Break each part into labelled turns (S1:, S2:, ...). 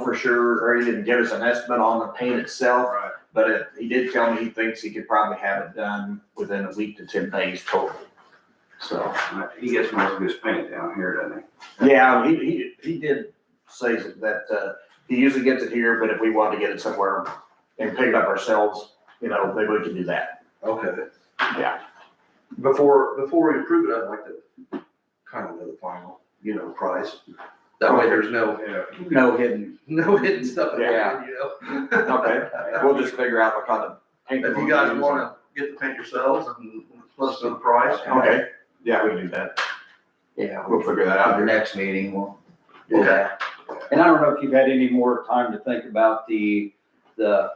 S1: for sure, or he didn't give us an estimate on the paint itself,
S2: Right.
S1: but it- he did tell me he thinks he could probably have it done within a week to ten days total. So,
S2: He gets most of his paint down here, doesn't
S1: yeah, he, he, he did say that, uh, he usually gets it here, but if we wanted to get it somewhere and pick it up ourselves, you know, maybe we can do that.
S3: Okay.
S1: Yeah.
S3: Before, before we approve it, I'd like to kind of know the final, you know, price. That way there's no,
S2: he? Yeah.
S4: No hidden.
S3: no hidden stuff in
S4: Yeah.
S3: there, you know?
S1: Okay,
S4: We'll just figure out what kind of. paint
S3: If
S4: we're
S3: you
S4: gonna
S3: guys
S4: use.
S3: wanna get the paint yourselves and let us know the price.
S1: Okay, yeah, we can do that.
S4: Yeah,
S1: We'll figure that
S4: at
S1: out.
S4: the next meeting, we'll. do
S3: Okay.
S4: that. And I don't know if you've had any more time to think about the, the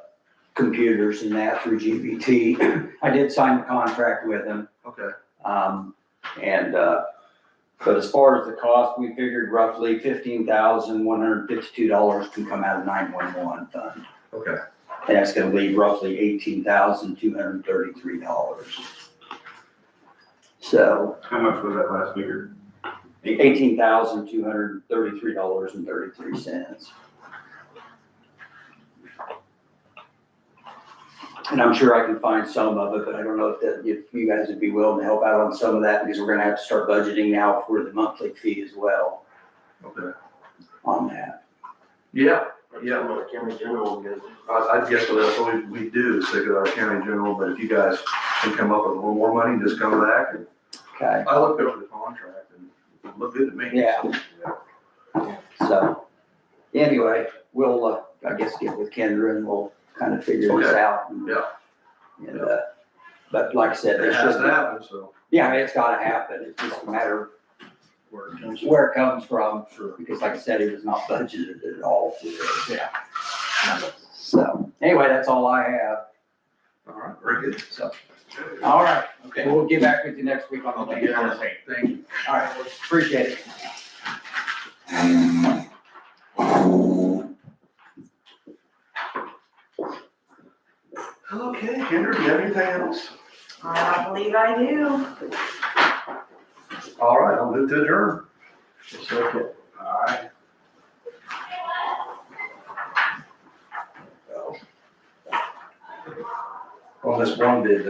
S4: computers and that through GBT. I did sign the contract with them,
S3: Okay,
S4: um, and, uh, but as far as the cost, we figured roughly fifteen thousand, one hundred fifty-two dollars can come out of nine-one-one fund.
S3: okay.
S4: And that's gonna leave roughly eighteen thousand, two hundred thirty-three dollars. So,
S2: How much was that last figure?
S4: eighteen thousand two hundred thirty-three dollars and thirty-three cents. And I'm sure I can find some of it, but I don't know if that, if you guys would be willing to help out on some of that, because we're gonna have to start budgeting now for the monthly fee as well
S3: Okay.
S4: on that.
S3: Yeah, yeah. Well, the county general I, I guess that's what we, we do, is stick with our county general, but if you guys can come up with a little more money, just come back and
S4: Okay,
S3: I looked over the contract and it looked good to me.
S4: Yeah. so, anyway, we'll, uh, I guess, get with Kendra and we'll kind of figure this
S3: Okay.
S4: out. and-
S3: Yeah.
S4: And, uh, but like I said,
S3: It
S4: it's
S3: has
S4: just.
S3: happened, so.
S4: Yeah, it's gotta happen, it's just a matter of where it comes from, because like I said, it was not budgeted at all for this.
S1: Yeah.
S4: So, anyway, that's all I have,
S3: All right, very good.
S4: so, all right, okay, we'll get back with you next week on the thing. All
S1: Okay.
S3: Thank you.
S4: right, appreciate it.
S3: Okay, Kendra, do you have anything else?
S5: Uh, I believe I do.
S3: All right, I'll move to adjourn.
S2: All right.
S3: On this one bid,